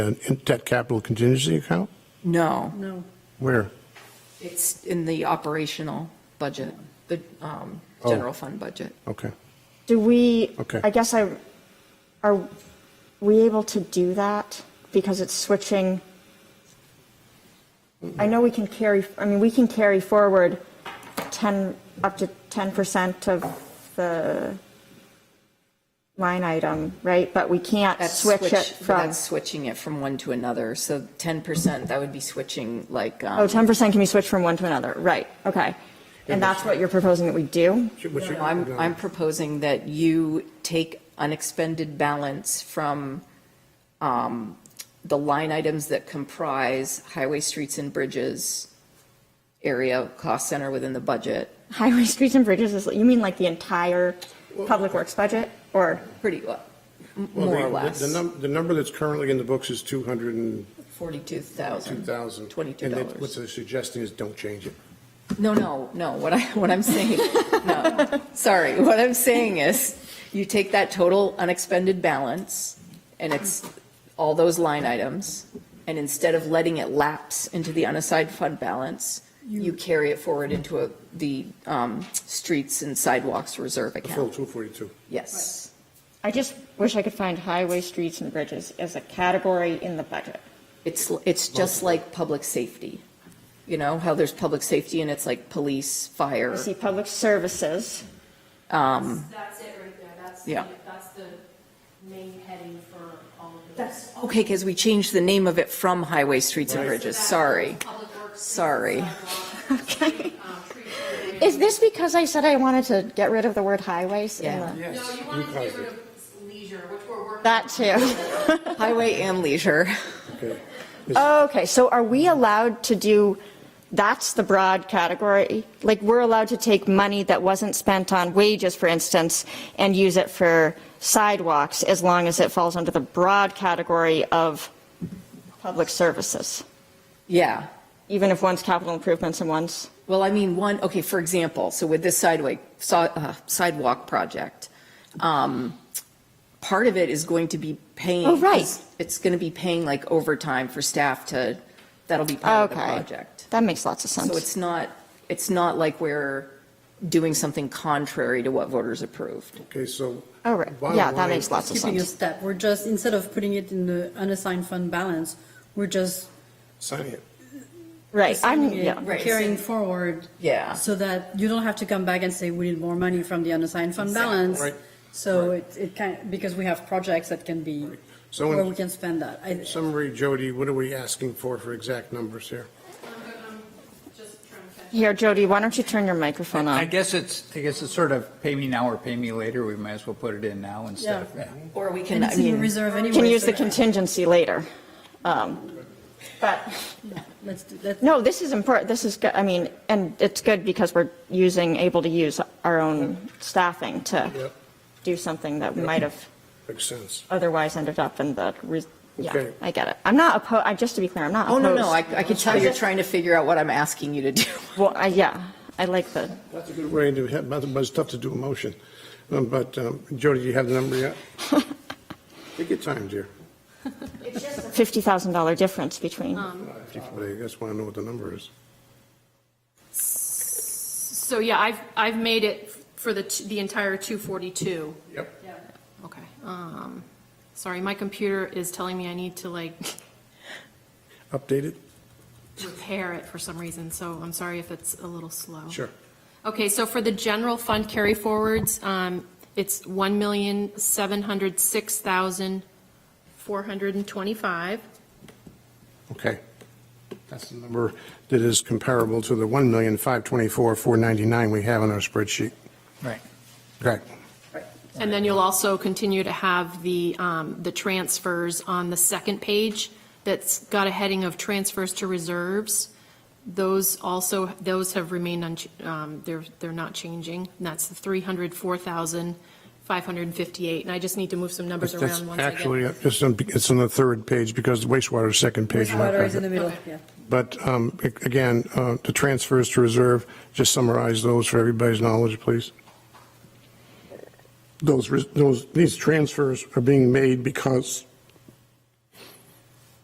an in- debt capital contingency account? No, No. Where? it's in the operational budget, the um, Oh. general fund budget. Okay. Do we, Okay. I guess I, are we able to do that? Because it's switching. I know we can carry, I mean, we can carry forward 10, up to 10% of the line item, right? But we can't That's switch it but from, That's switching it from one to another, so 10%, that would be switching like. um, oh, 10% can be switched from one to another, right, okay. And that's what you're proposing that we do? I'm, I'm proposing that you take unexpended balance from um, the line items that comprise highway, streets, and bridges area cost center within the budget, Highway, streets and bridges is, you mean like the entire public works budget or? pretty, well, m- Well, more the- or less, The num, the number that's currently in the books is 202,000. 42,000. And that's- $22. what they're suggesting is don't change it. No, no, no, what I, what I'm saying, no, sorry, what I'm saying is, you take that total unexpended balance, and it's all those line items, and instead of letting it lapse into the unassigned fund balance, you carry it forward into a, the, um, streets and sidewalks reserve The full account, 242. yes. I just wish I could find highway, streets, and bridges as a category in the budget. It's, it's just like public safety, you know, how there's public safety and it's like police, I fire, see public services, um, That's it right there, that's, Yeah. the that's the main heading for all of this. okay, because we changed the name of it from highway, streets and bridges, sorry. Public works. um, Sorry. Okay. Is this because I said I wanted to get rid of the word highways? in Yeah. the- No, you wanted to get rid of leisure, which we're working. That too. Highway and leisure. Okay. Okay, so are we allowed to do, that's the broad category? Like, we're allowed to take money that wasn't spent on wages, for instance, and use it for sidewalks as long as it falls under the broad category of public services, Yeah. even if one's capital improvements and one's? Well, I mean, one, okay, for example, so with this sidewalk, si- uh, sidewalk project, um, part of it is going to be paying. Oh, right. it's- It's going to be paying like overtime for staff to, that'll be part of the Okay. project. That makes lots of So sense. it's not, it's not like we're doing something contrary to what voters approved. Okay, so. Oh, right. bottom Yeah, that line- makes lots of skipping a sense. step. We're just, instead of putting it in the unassigned fund balance, we're just Sign it. Right, I'm, assigning it, yeah. Right. carrying forward. Yeah. So that you don't have to come back and say, we need more money from the unassigned fund balance. Right. So it, it can, because we have projects that can be, So where we in can spend that. I- summary, Jody, what are we asking for, for exact numbers here? I'm just trying to catch. Here, Jody, why don't you turn your microphone I on? guess it's, I guess it's sort of pay me now or pay me later. We might as well put it in now instead of, yeah. Or we can, And I it's in the mean, reserve You anyway. Can use so the contingency later. Um, But, Let's, do- let's, no, this is important, this is, good. I mean, and it's good because we're using, able to use our own staffing to Yep. do something that we might have Makes sense. otherwise ended up in the, re- yeah, Okay. I get it. I'm not opposed, I, just to be clear, I'm not oh, opposed. no, no, I I can tell you're trying to figure out what I'm asking you to do. Well, I- yeah, I like the, That's a good way to, have- but it's tough to do a motion. Um, But um, Jody, you have the number yet? Take your time, dear. $50,000 difference between. Uh, I just want to know what the number is. So, yeah, I've, I've made it for the, t- the entire 242. Yep. Okay. Um, sorry, my computer is telling me I need to like Updated? repair it for some reason, so I'm sorry if it's a little slow. Sure. Okay, so for the general fund carry forwards, um, it's one million, seven hundred, six thousand, four hundred and twenty-five. Okay. That's the number that is comparable to the 1,524,499 we have on our spreadsheet. Right. Correct. And then you'll also continue to have the, um, the transfers on the second page that's got a heading of transfers to reserves. Those also, those have remained, unch- um, they're, they're not changing. And that's the 304,558. And I just need to move some numbers That's around once I get. actually, it's on, it's on the third page because wastewater is second page. we're not water is in the gonna- middle, yeah. But um, a- again, uh, the transfers to reserve, just summarize those for everybody's knowledge, please. Those, res- those, these transfers are being made because